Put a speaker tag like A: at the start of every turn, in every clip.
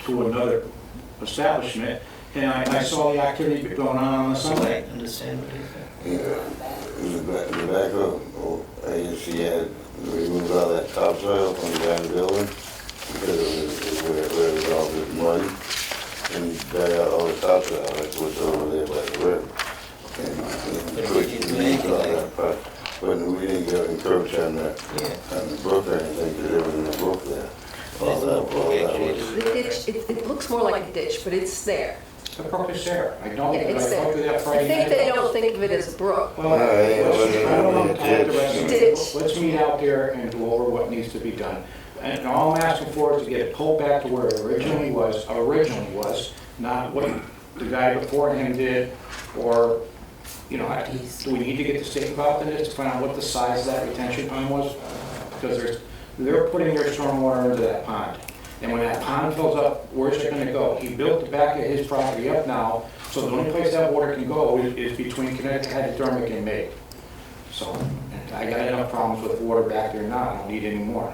A: to another establishment, and I, I saw the activity going on on the Sunday.
B: I understand what you're saying.
C: Yeah, the back, the back of, ASC had removed all that topsoil from the back of the building because it was, where, where it was all this mud. And dug out all the topsoil, that's what's over there by the river. And- and
B: But
C: put-
B: we didn't do anything
C: all
B: like-
C: that part. But we didn't go encroach on the,
B: Yeah.
C: on the brook or anything, because there wasn't a brook there. All
B: There's
C: that,
B: no
C: all
B: brook
C: that
B: actually.
C: was.
D: The ditch, it, it looks more like a ditch, but it's there.
A: The brook is there. I know,
D: Yeah,
A: that I
D: it's there.
A: spoke to that
D: I
A: Friday
D: think
A: night.
D: they don't think of it as a brook.
A: Well, let's-
C: Yeah,
A: I don't wanna talk the rest of it.
D: Ditch.
A: Let's meet out there and go over what needs to be done. And all I'm asking for is to get it pulled back to where it originally was, originally was, not what the guy before him did, or, you know, I- do we need to get the state involved in this to find out what the size of that retention pond was? Because there's, they're putting their stormwater into that pond. And when that pond fills up, where's it gonna go? He built the back of his property up now, so the only place that water can go is- is between Connecticut Hydrodynamic and May. So, and I got enough problems with water back there now, I don't need any more.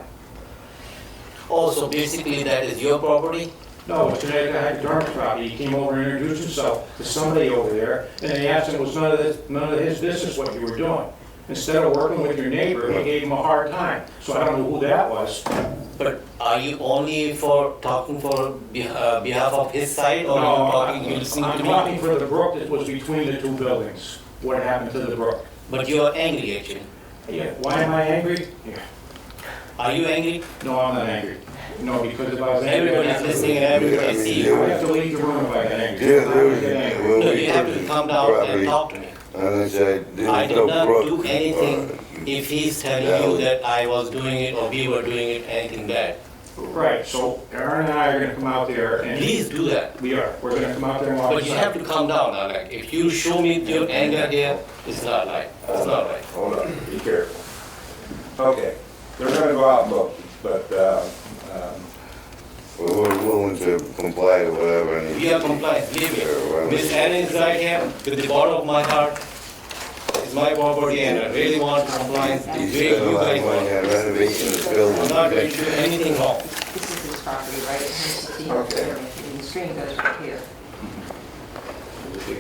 B: Oh, so basically that is your property?
A: No, it's Connecticut Hydrodynamic property, he came over and introduced himself to somebody over there, and they asked him, it was none of this, none of his business what you were doing. Instead of working with your neighbor, he gave him a hard time, so I don't know who that was.
B: But are you only for talking for beh- uh, behalf of his side or
A: No,
B: you
A: I'm-
B: talking, you listening
A: I'm
B: to
A: talking
B: me?
A: for the brook that was between the two buildings, what happened to the brook.
B: But you are angry actually.
A: Yeah, why am I angry? Yeah.
B: Are you angry?
A: No, I'm not angry. No, because if I was angry,
B: Everyone
A: I'd
B: is
A: have to-
B: listening and everybody see
A: I
B: you.
A: would have to leave the room if I got angry.
C: Yeah,
A: I
C: there
A: would
C: was,
A: get angry.
C: when
B: No,
C: we
B: you have to
C: purchased
B: come
C: the
B: down
C: property,
B: and talk to me.
C: And I said,
B: I
C: there's
B: did
C: no
B: not do
C: brook.
B: anything if he's
C: Yeah,
B: telling you
C: we-
B: that I was doing it or we were doing it, anything bad.
A: Right, so Aaron and I are gonna come out there and
B: Please do that.
A: we are, we're gonna come out there and walk.
B: But you have to calm down, now. Like, If you show me your anger here, it's not right. It's not right.
E: Hold on, be careful. Okay, they're gonna go out and look, but, uh, um,
C: We were willing to comply or whatever. and-
B: We are compliant, believe me. Miss Anna is right here with the bottom of my heart. It's my property and I really want compliance the
C: You
B: way
C: spend a
B: you
C: lot of
B: guys
C: money
B: want.
C: on renovation of the
B: I'm not going
C: building.
B: to do anything wrong.
F: This is his property, right? It has to be
E: Okay.
F: here, And the stream goes right here.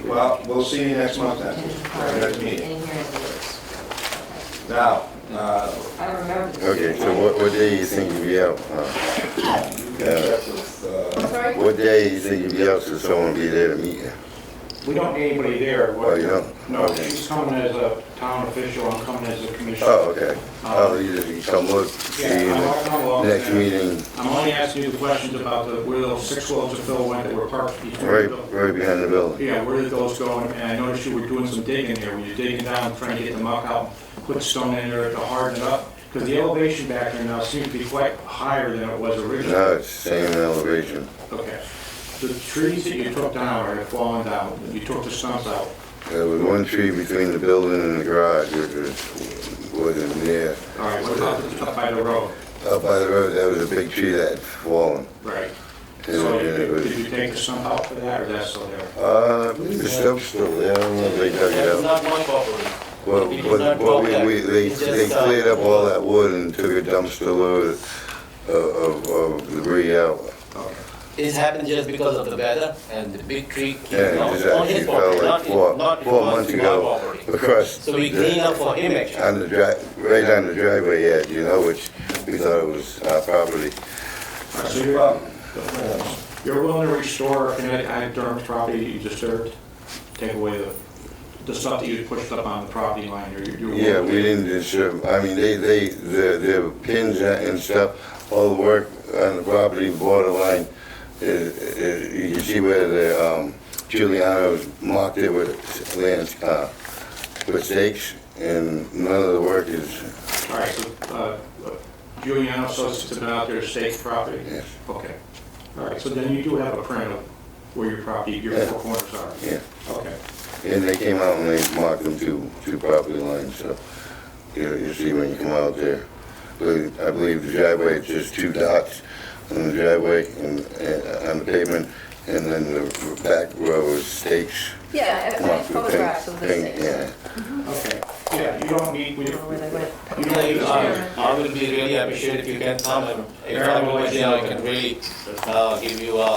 E: well, we'll see you next month then, our next
F: In
E: meeting.
F: here and this.
E: Now, uh,
F: I remember
C: Okay,
F: this.
C: so what, what day you think you'll be out? huh?
E: you can check with, uh,
D: Sorry?
C: What day you think you'll be out so someone will be there to meet you?
A: We don't need anybody there. What-
C: Oh, you don't?
A: No, she's coming as a town official, I'm coming as a commissioner.
C: Oh, okay. I'll either come look, see you
A: Yeah, I'll come along.
C: in the next meeting,
A: I'm only asking you questions about the, where those six wells of fill went that were parked between.
C: right,
A: the-
C: right behind the building.
A: Yeah, where did those go? And I noticed you were doing some digging there, were you digging down, trying to get the muck out, put stone in there to harden it up? Because the elevation back there now seems to be quite higher than it was originally.
C: No, it's same elevation.
A: Okay. The trees that you took down are fallen down, you took the stumps out.
C: There was one tree between the building and the garage, which was, wasn't there.
A: All right, what about the stuff by the road?
C: Up by the road, that was a big tree that had fallen.
A: Right.
C: And
A: So
C: it- it
A: did
C: was-
A: did you take the stump out for that, or that's still there?
C: Uh, I believe the stump's still there, I don't know if they dug it
B: That's
C: up.
B: not my property.
C: Well,
B: It is
C: but,
B: not
C: but we,
B: locked.
C: we, they,
B: It's
C: they
B: just, uh,
C: cleared up all that wood and took a dumpster load of, of, of debris out.
B: This happened just because of the weather and the big tree came
C: Yeah,
B: down
C: it just
B: on his
C: actually fell
B: property,
C: like
B: not in,
C: four,
B: not in
C: four
B: response
C: months
B: to my
C: ago
B: property.
C: across.
B: So we
C: the-
B: clean up for him actually.
C: On the dri, right on the driveway edge, you know, which we thought it was our property.
A: So you're, uh,
E: well,
A: you're willing to restore Connecticut Hydrodynamics property that you disturbed? Take away the, the stuff that you pushed up on the property line, you're, you're willing
C: Yeah,
A: to-
C: we didn't disturb, I mean, they, they, the, the pins and stuff, all the work on the property borderline, is, is, you can see where the, um, Giuliano's marked it with lands, uh, with stakes, and none of the work is,
A: All right, so, uh, Giuliano Associates have been out there to stake property?
C: Yes.
A: Okay. All right, so then you do have a print of where your property, your
C: Yeah.
A: four corners are?
C: yeah.
A: Okay.
C: And they came out and they marked them two, two property lines, so, you know, you see when you come out there. But I believe the driveway, it's just two dots on the driveway and, and on the pavement, and then the back row is stakes.
D: Yeah, I- I
C: marked with pink-
D: photographs of the
C: pink,
D: things.
C: Yeah,
A: Okay, yeah, you don't need, we,
F: I don't know where they went.
A: you
B: No,
A: don't need uh,
B: you- uh, I
A: this.
B: I will be really appreciated if you can come and if
A: Yeah, I will
B: I'm
A: let you
B: here, I
A: know.
B: can really uh, give you a